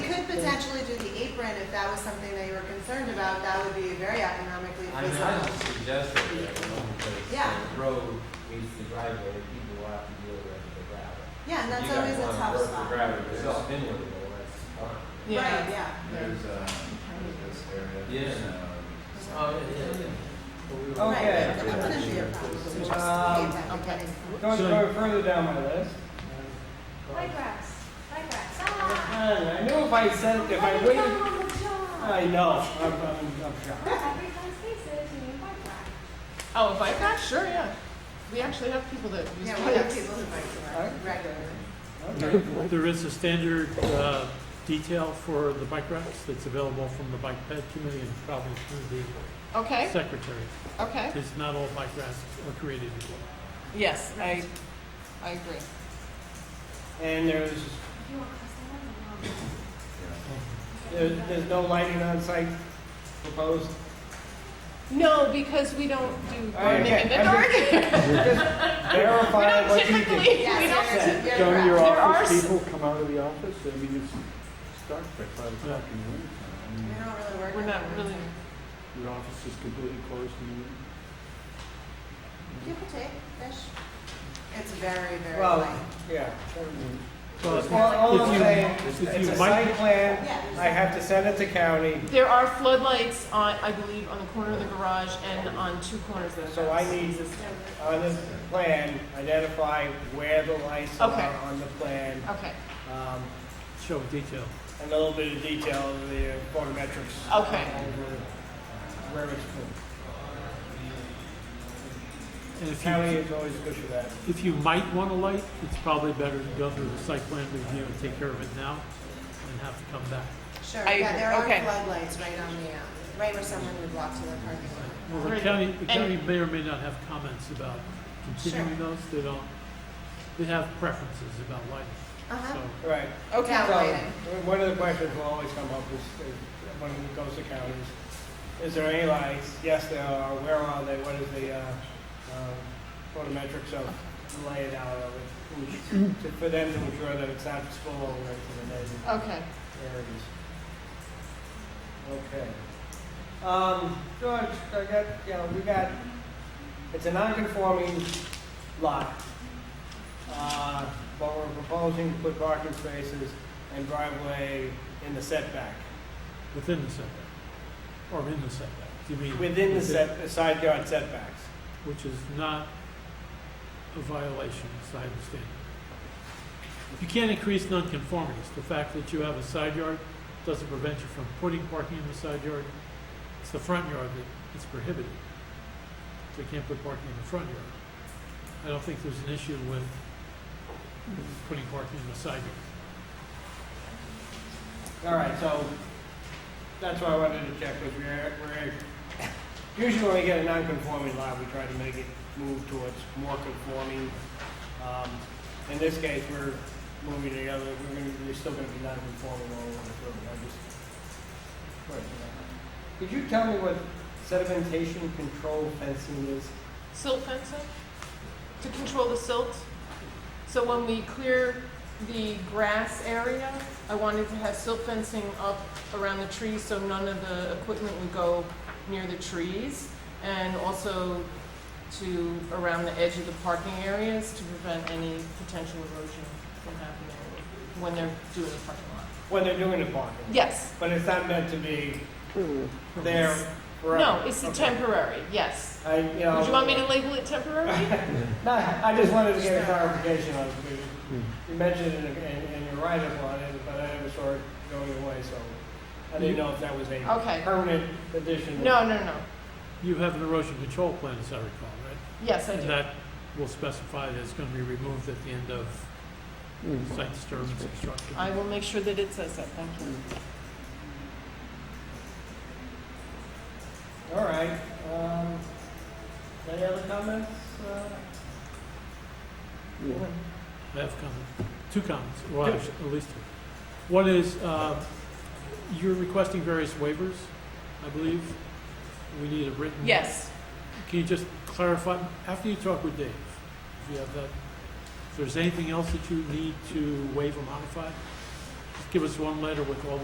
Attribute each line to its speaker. Speaker 1: potentially do the apron if that was something that you were concerned about, that would be very economically
Speaker 2: I mean, I
Speaker 1: feasible.
Speaker 2: don't suggest it, you know, because
Speaker 1: Yeah.
Speaker 2: the road meets the driveway, people will have to deal with the gravel.
Speaker 1: Yeah, and
Speaker 2: If
Speaker 1: that's always a tough
Speaker 2: You guys wanna work the
Speaker 1: spot.
Speaker 2: gravel yourself anyway, well, that's
Speaker 1: Right, yeah.
Speaker 3: There's, uh, there's this area.
Speaker 2: Yeah.
Speaker 3: there's, um,
Speaker 2: fine.
Speaker 4: Okay.
Speaker 1: Right, yeah, that wouldn't be a problem. It's just the
Speaker 4: Um,
Speaker 1: apron,
Speaker 5: Oh, okay.
Speaker 4: Going fur- further down my list.
Speaker 6: Playgrass, playgrass, ah!
Speaker 4: Uh, I knew if I said, if I
Speaker 6: Let me
Speaker 4: waited,
Speaker 6: come on the job.
Speaker 4: I know, I'm, I'm, I'm shocked.
Speaker 6: Everyone sees it, you need playgrass.
Speaker 5: Oh, bike rack? Sure, yeah. We actually have people that use
Speaker 1: Yeah, we have
Speaker 5: bikes.
Speaker 1: people who bike to work
Speaker 4: Alright.
Speaker 1: regularly.
Speaker 4: Okay.
Speaker 7: There is a standard uh, detail for the bike racks that's available from the bike ped committee and probably through the
Speaker 5: Okay,
Speaker 7: secretary.
Speaker 5: okay.
Speaker 7: Because not all bike racks are created equal.
Speaker 5: Yes, I, I agree.
Speaker 4: And there's,
Speaker 6: You want custom ones
Speaker 4: there's, there's no lighting on site proposed.
Speaker 5: No, because we don't do
Speaker 4: Oh,
Speaker 5: gardening
Speaker 4: okay.
Speaker 5: in the dark. We
Speaker 4: Just verify
Speaker 5: don't
Speaker 4: what you
Speaker 5: typically,
Speaker 4: think.
Speaker 5: we
Speaker 1: Yes,
Speaker 5: don't.
Speaker 1: you're- you're
Speaker 3: Don't your
Speaker 5: There are
Speaker 3: office
Speaker 5: s-
Speaker 3: people come out of the office? I mean, it's dark by five o'clock in the winter. I
Speaker 1: We
Speaker 3: mean,
Speaker 1: don't really work.
Speaker 5: We're not really,
Speaker 3: Your office is completely closed in the winter.
Speaker 1: People take fish. It's very, very
Speaker 4: Well,
Speaker 1: light.
Speaker 4: yeah. All,
Speaker 7: Well,
Speaker 4: all
Speaker 7: If
Speaker 4: I'm
Speaker 7: you-
Speaker 4: saying,
Speaker 7: if
Speaker 4: it's
Speaker 7: you
Speaker 4: a
Speaker 7: might-
Speaker 4: site plan, I
Speaker 1: Yeah.
Speaker 4: have to send it to county,
Speaker 5: there are floodlights on, I believe, on the corner of the garage and on two corners of the house.
Speaker 4: so I need on this plan, identify where the lights are
Speaker 5: Okay.
Speaker 4: on the plan.
Speaker 5: Okay,
Speaker 4: Um,
Speaker 7: Show detail.
Speaker 4: and a little bit of detail of the photometrics.
Speaker 5: Okay.
Speaker 4: Over where it's from.
Speaker 7: And if
Speaker 4: County
Speaker 7: you,
Speaker 4: is always good for that.
Speaker 7: if you might want a light, it's probably better to go through the site plan review and take care of it now and have to come back.
Speaker 1: Sure,
Speaker 5: I
Speaker 1: yeah,
Speaker 5: agree.
Speaker 1: there are
Speaker 5: Okay.
Speaker 1: floodlights right on the, um, right where someone would walk to the parking lot.
Speaker 7: Well, the
Speaker 5: Right.
Speaker 7: county, the
Speaker 5: And-
Speaker 7: county may or may not have comments about continuing those. They don't, they have preferences about lighting,
Speaker 1: Uh-huh.
Speaker 7: so.
Speaker 4: Right.
Speaker 5: okay.
Speaker 1: Yeah.
Speaker 4: So,
Speaker 1: lighting.
Speaker 4: one of the questions will always come up is, is when it goes to counties, is there any lights? Yes, there are. Where are they? What is the, uh, um, photometrics of lay it out of it? Who's- to- For them to ensure that it's not full over to the neighbors.
Speaker 5: Okay.
Speaker 4: areas. Okay. Um, George, I got, you know, we got, it's a non-conforming lot. Uh, but we're proposing to put parking spaces and driveway in the setback,
Speaker 7: Within the setback, or in the setback, do you mean?
Speaker 4: within the set, side yard setbacks.
Speaker 7: Which is not a violation, as I understand it. You can't increase nonconformities. The fact that you have a side yard doesn't prevent you from putting parking in the side yard. It's the front yard that is prohibited. So you can't put parking in the front yard. I don't think there's an issue with putting parking in the side yard.
Speaker 4: All right, so that's why I wanted to check with you. We're, we're, usually when we get a non-conforming lot, we try to make it move towards more conforming. Um, in this case, we're moving the other, we're gonna, we're still gonna be non-conforming all over the road. I just. question that. Could you tell me what sedimentation control fencing is?
Speaker 5: Silt fencing to control the silt. So when we clear the grass area, I wanted to have silt fencing up around the trees so none of the equipment would go near the trees. And also to, around the edge of the parking areas to prevent any potential erosion from happening when they're doing the parking lot.
Speaker 4: When they're doing the parking?
Speaker 5: Yes,
Speaker 4: But it's not meant to be there forever?
Speaker 5: no, it's a
Speaker 4: Okay.
Speaker 5: temporary, yes.
Speaker 4: I, you know.
Speaker 5: Would you want me to label it temporary?
Speaker 4: No, I just wanted to get a clarification on it, because you mentioned it in, in your write-up on it, but I never saw it going away, so I didn't know if that was a
Speaker 5: Okay.
Speaker 4: permanent addition.
Speaker 5: No, no, no.
Speaker 7: You have an erosion control plan, as I recall, right?
Speaker 5: Yes, I do.
Speaker 7: And that will specify that it's going to be removed at the end of site disturbance construction.
Speaker 5: I will make sure that it says that, thank you.
Speaker 4: All right, um, any other comments? Uh,
Speaker 7: I have comment, two comments, well, actually, at least two. One is, uh, you're requesting various waivers, I believe. We need a written.
Speaker 5: Yes,
Speaker 7: Can you just clarify, after you talk with Dave, if you have that, if there's anything else that you need to waive or modify, just give us one letter with all